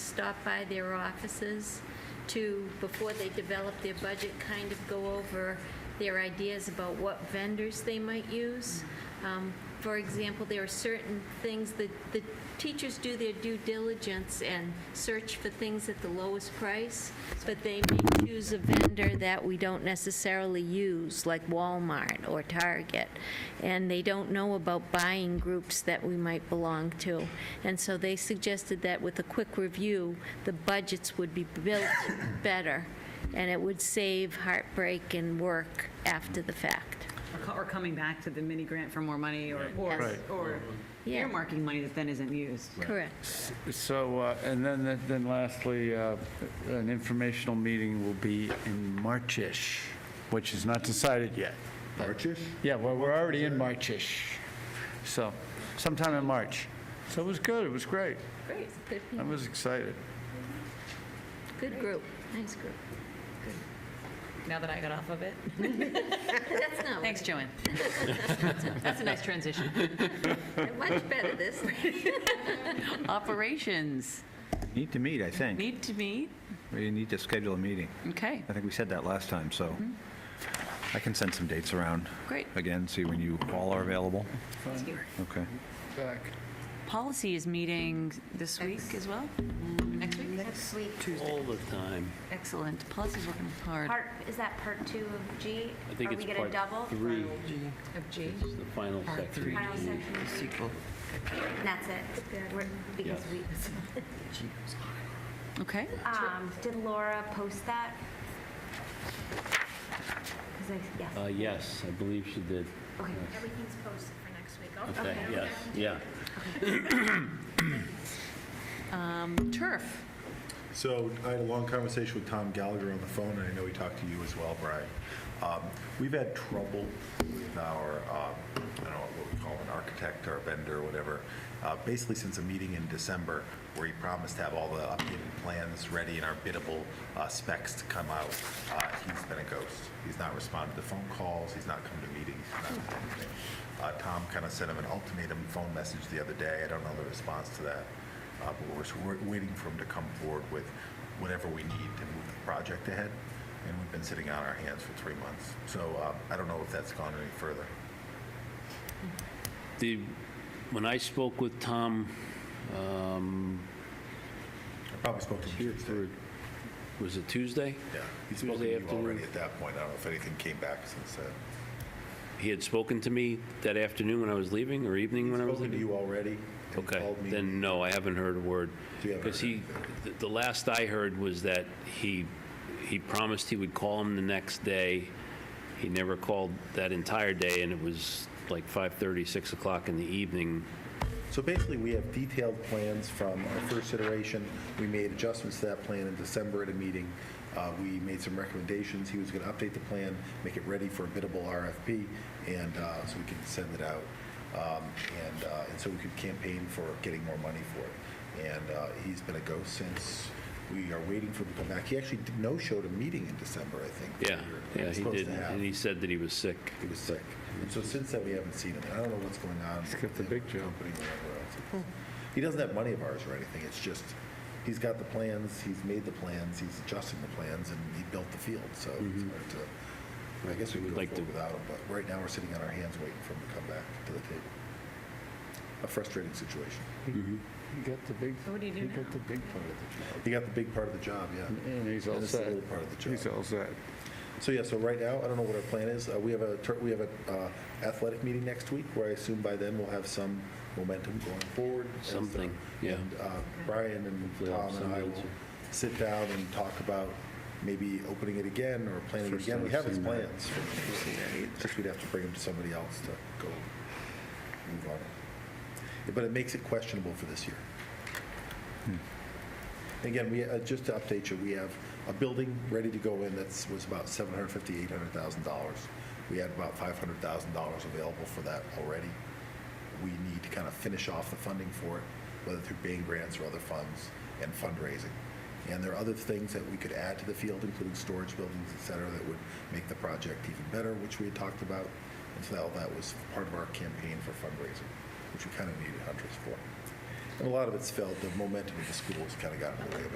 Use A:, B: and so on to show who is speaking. A: stop by their offices to, before they develop their budget, kind of go over their ideas about what vendors they might use. Um, For example, there are certain things that the teachers do their due diligence and search for things at the lowest price, but they may choose a vendor that we don't necessarily use, like Walmart or Target, and they don't know about buying groups that we might belong to. And so they suggested that with a quick review, the budgets would be built better, and it would save heartbreak and work after the fact.
B: Or co- Or coming back to the mini grant for more money or, or-
A: Yes.
C: Right.
B: or
A: Yeah.
B: earmarking money that then isn't used.
A: Correct.
C: So, uh, and then, then lastly, uh, an informational meeting will be in Marchish, which is not decided yet.
D: Marchish?
C: Yeah, well, we're already in Marchish, so sometime in March. So it was good, it was great.
A: Great.
C: I was excited.
A: Good group, nice group.
B: Now that I got off of it.
A: That's not,
B: Thanks, Joanne. That's a nice transition.
A: much better this.
B: Operations,
D: Need to meet, I think.
B: need to meet,
D: We need to schedule a meeting.
B: okay,
D: I think we said that last time, so I can send some dates around
B: great.
D: again, see when you all are available. Okay.
C: Back.
B: Policy is meeting this week as well? Next week?
E: Next week.
F: All the time.
B: Excellent, policy's working hard.
E: Part, is that part two of G?
F: I think it's
E: Are we gonna
F: part
E: double?
F: three,
B: Of G.
F: It's the final section.
E: Final section of G? And that's it? We're- Because
F: Yes.
E: we,
B: Okay,
E: um, did Laura post that? 'Cause I- yes.
F: Uh, Yes, I believe she did.
E: Okay.
G: Everything's posted for next week.
F: Okay, yes, yeah.
B: turf,
H: So I had a long conversation with Tom Gallagher on the phone, and I know he talked to you as well, Brian. Um, We've had trouble with our, um, I don't know what we call an architect or a vendor or whatever, uh, basically since a meeting in December where he promised to have all the updated plans ready and our biddable uh, specs to come out. Uh, He's been a ghost. He's not responded to phone calls, he's not come to meetings, he's not done anything. Uh, Tom kind of sent him an ultimatum phone message the other day. I don't know the response to that. Uh, But we're, s- we're waiting for them to come forward with whatever we need to move the project ahead. And we've been sitting on our hands for three months. So uh, I don't know if that's gone any further.
F: The, when I spoke with Tom,
H: I probably spoke to him Tuesday.
F: was it Tuesday?
H: Yeah, he spoke to
F: Tuesday
H: you already
F: afternoon.
H: at that point. I don't know if anything came back since then.
F: He had spoken to me that afternoon when I was leaving, or evening when I was
H: Spoken to
F: leaving?
H: you already? and
F: Okay,
H: called me.
F: then no, I haven't heard a word.
H: You haven't
F: Because
H: heard
F: he, th- the last I heard was that he, he promised he would call him the next day. He never called that entire day, and it was like 5:30, 6 o'clock in the evening
H: So basically, we have detailed plans from our first iteration. We made adjustments to that plan in December at a meeting. Uh, We made some recommendations. He was going to update the plan, make it ready for a biddable RFP, and uh, so we could send it out. Um, And uh, and so we could campaign for getting more money for it. And uh, he's been a ghost since. We are waiting for him to come back. He actually did- no-showed a meeting in December, I think. that
F: Yeah,
H: we were
F: yeah, he
H: supposed to
F: did,
H: have.
F: and he said that he was sick.
H: He was sick. And so since then, we haven't seen him. I don't know what's going on.
C: He's got the big
H: with him,
C: job.
H: company or whatever else. He doesn't have money of ours or anything. It's just, he's got the plans, he's made the plans, he's adjusting the plans, and he built the field, so
C: Mm-hmm.
H: it's hard to, I guess we
F: We'd
H: could go
F: like to-
H: forward without him, but right now, we're sitting on our hands waiting for him to come back to the table. A frustrating situation.
C: He got the big,
B: What do you do
C: he
B: now?
C: got the big part of
H: He got the big part of the job,
C: the job.
H: yeah.
C: And he's all
H: And it's the
C: set.
H: little part of the
C: He's
H: job.
C: all set.
H: So yeah, so right now, I don't know what our plan is. Uh, We have a, tur- we have a uh, athletic meeting next week, where I assume by then we'll have some momentum going forward. as the-
F: Something, yeah.
H: And uh, Brian and
F: Hopefully I'll
H: Tom and I
F: send it
H: will
F: to-
H: sit down and talk about maybe opening it again or planning it
C: First
H: again. We
C: I've
H: have his
C: seen that.
H: plans. It's Just we'd have to bring them to somebody else to go move on. it. But it makes it questionable for this year. Again, we, uh, just to update you, we have a building ready to go in that's, was about $750,000, $800,000. We had about $500,000 available for that already. We need to kind of finish off the funding for it, whether through Bain grants or other funds and fundraising. And there are other things that we could add to the field, including storage buildings, et cetera, that would make the project even better, which we had talked about. And so that- that was part of our campaign for fundraising, which we kind of needed hunters for. And a lot of it's felt, the momentum of the school has kind of gotten in the way of it.